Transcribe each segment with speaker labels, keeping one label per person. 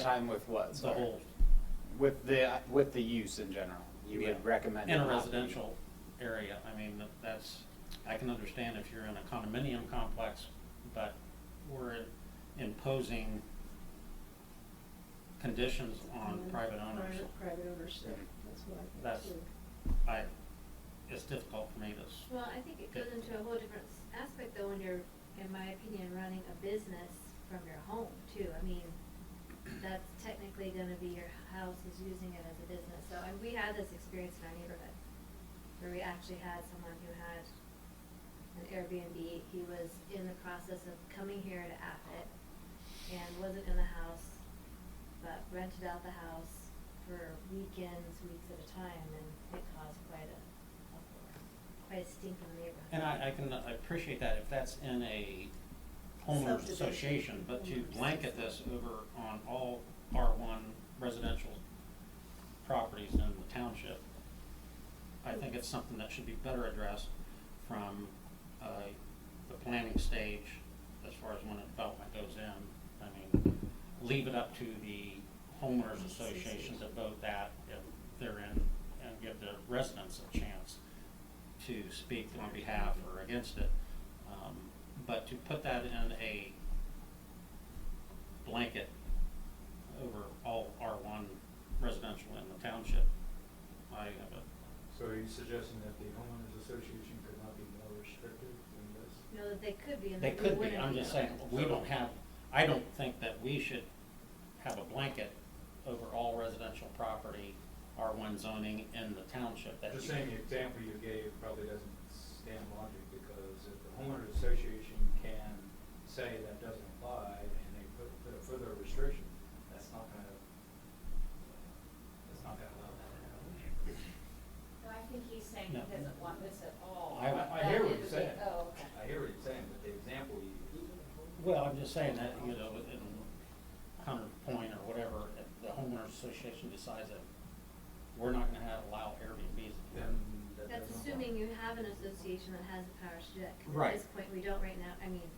Speaker 1: time with what?
Speaker 2: the
Speaker 1: sorry?
Speaker 2: whole,
Speaker 1: With the, with the use in general, you
Speaker 2: Yeah.
Speaker 1: would recommend.
Speaker 2: in
Speaker 1: it
Speaker 2: a
Speaker 1: not be-
Speaker 2: residential area, I mean, that- that's, I can understand if you're in a condominium complex, but we're imposing conditions on
Speaker 3: Mm-hmm.
Speaker 4: Mhm.
Speaker 2: private owners.
Speaker 4: Private, private owners, yeah, that's what I think.
Speaker 2: That's-
Speaker 4: too.
Speaker 2: I, it's difficult for me to, s-
Speaker 3: Well, I think it goes into a whole different s- aspect though when you're, in my opinion, running a business from your home too. I mean, that's technically gonna be your house is using it as a business. So, and we had this experience in our neighborhood where we actually had someone who had an Airbnb. He was in the process of coming here to Abbott and wasn't in the house, but rented out the house for weekends, weeks at a time, and it caused quite a uproar, quite a stink in the neighborhood.
Speaker 2: and I, I can appreciate that if that's in a homeowners
Speaker 4: Subdivision.
Speaker 2: association, but to
Speaker 4: Homeowners.
Speaker 2: blanket this over on all R one residential properties in the township, I think it's something that should be better addressed from, uh, the planning stage as far as when a development goes in. I mean, leave it up to the homeowners association to vote that if they're in, and give the residents a chance to speak on behalf or against it. Um, but to put that in a blanket over all R one residential in the township, I have a,
Speaker 5: So are you suggesting that the homeowners association could not be more restrictive than this?
Speaker 3: No, that they could be, and
Speaker 2: they
Speaker 3: that we
Speaker 2: could
Speaker 3: wouldn't
Speaker 2: be,
Speaker 3: be.
Speaker 2: I'm just saying, we don't have, I don't think that we should have a blanket over all residential property, R one zoning in the township that
Speaker 5: Just
Speaker 2: you-
Speaker 5: saying the example you gave probably doesn't stand logic, because if the homeowners association can say that doesn't apply, and they put, put a further restriction, that's not gonna, that's not gonna allow that to happen.
Speaker 6: No, I think he's saying
Speaker 2: No.
Speaker 6: he doesn't want this at all.
Speaker 2: I-
Speaker 6: but
Speaker 5: I
Speaker 6: that
Speaker 5: hear what
Speaker 6: is
Speaker 5: you're
Speaker 6: the-
Speaker 5: saying.
Speaker 6: Oh, okay.
Speaker 5: I hear what you're saying, but the example you used,
Speaker 2: Well, I'm just saying that, you know, in Hunter Point or whatever, if the homeowners association decides that we're not gonna have, allow Airbnbs.
Speaker 5: then that doesn't
Speaker 3: That's
Speaker 5: apply.
Speaker 3: assuming you have an association that has the powers to do it. 'cause
Speaker 2: Right.
Speaker 3: At this point, we don't right now, I mean,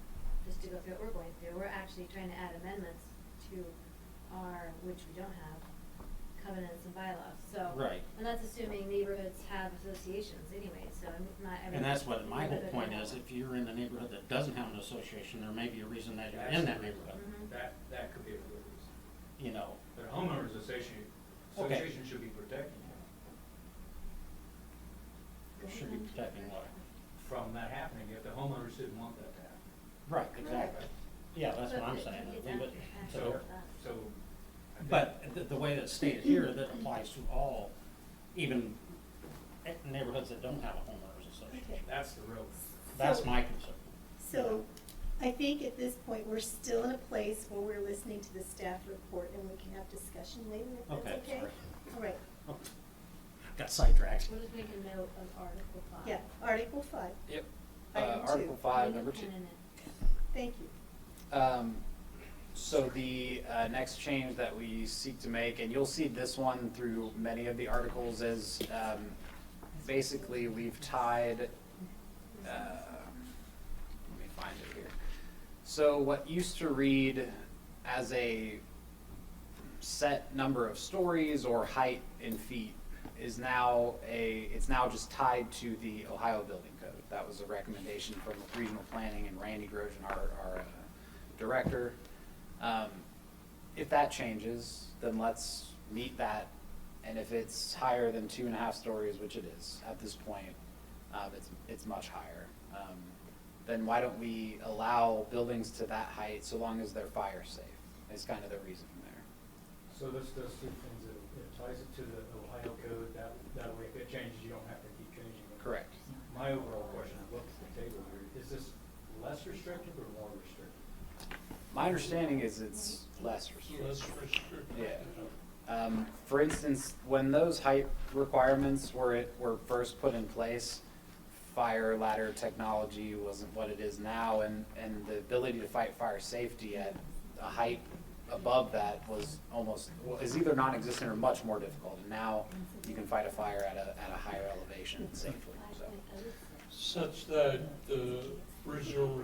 Speaker 3: just to go through what we're going through, we're actually trying to add amendments to our, which we don't have, covenants and bylaws, so.
Speaker 2: Right.
Speaker 3: And that's assuming neighborhoods have associations anyway, so I'm not, I mean.
Speaker 2: And that's what my whole
Speaker 3: neighborhood
Speaker 2: point
Speaker 3: has
Speaker 2: is,
Speaker 3: one.
Speaker 2: if you're in a neighborhood that doesn't have an association, there may be a reason that you're in that neighborhood,
Speaker 3: Mhm.
Speaker 5: That, that could be a good reason.
Speaker 3: Mm-hmm.
Speaker 2: you know.
Speaker 5: But homeowners association,
Speaker 2: Okay.
Speaker 5: association should be protecting them
Speaker 2: Should be
Speaker 3: Mm-hmm.
Speaker 2: protecting water.
Speaker 5: from that happening, if the homeowners didn't want that to happen.
Speaker 2: Right,
Speaker 3: exactly.
Speaker 2: Yeah, that's what
Speaker 3: But
Speaker 2: I'm
Speaker 3: it-
Speaker 2: saying,
Speaker 3: it's
Speaker 2: leave it
Speaker 3: after-
Speaker 2: to
Speaker 3: after
Speaker 2: her.
Speaker 3: the fact.
Speaker 5: So. I think-
Speaker 2: But the, the way that's stated here, that applies to all, even eh, neighborhoods that don't have a homeowners association.
Speaker 5: That's the real.
Speaker 2: That's
Speaker 4: So-
Speaker 2: my concern.
Speaker 4: So, I think at this point, we're still in a place where we're listening to the staff report and we can have discussion later if
Speaker 2: Okay,
Speaker 4: that's okay.
Speaker 2: sorry.
Speaker 4: All right,
Speaker 2: Got sidetracked.
Speaker 3: We'll just make a note of Article Five.
Speaker 4: yeah, Article five,
Speaker 1: Yep. Uh,
Speaker 4: Item two.
Speaker 1: Article
Speaker 3: Leave
Speaker 1: five,
Speaker 3: a
Speaker 1: number two.
Speaker 3: pin in it.
Speaker 4: thank you.
Speaker 1: Um, so the, uh, next change that we seek to make, and you'll see this one through many of the articles, is, um, basically we've tied, uh, let me find it here. So what used to read as a set number of stories or height in feet is now a, it's now just tied to the Ohio Building Code. That was a recommendation from regional planning and Randy Grosjean, our, our uh, director. Um, If that changes, then let's meet that. And if it's higher than two and a half stories, which it is at this point, um, it's, it's much higher. Um, Then why don't we allow buildings to that height so long as they're fire safe? Is kind of the reason there.
Speaker 5: So this does two things, it it ties it to the Ohio code, that, that way if it changes, you don't have to keep changing it.
Speaker 1: Correct.
Speaker 5: My overall question, I looked at the table here, is this less restrictive or more restrictive?
Speaker 1: My understanding is it's less restrictive.
Speaker 7: restrictive.
Speaker 1: Yeah. Um, for instance, when those height requirements were, it- were first put in place, fire ladder technology wasn't what it is now, and, and the ability to fight fire safety at a height above that was almost, well, is either non-existent or much more difficult. And now you can fight a fire at a, at a higher elevation safely, so.
Speaker 3: Five point oh six.
Speaker 7: Such that the original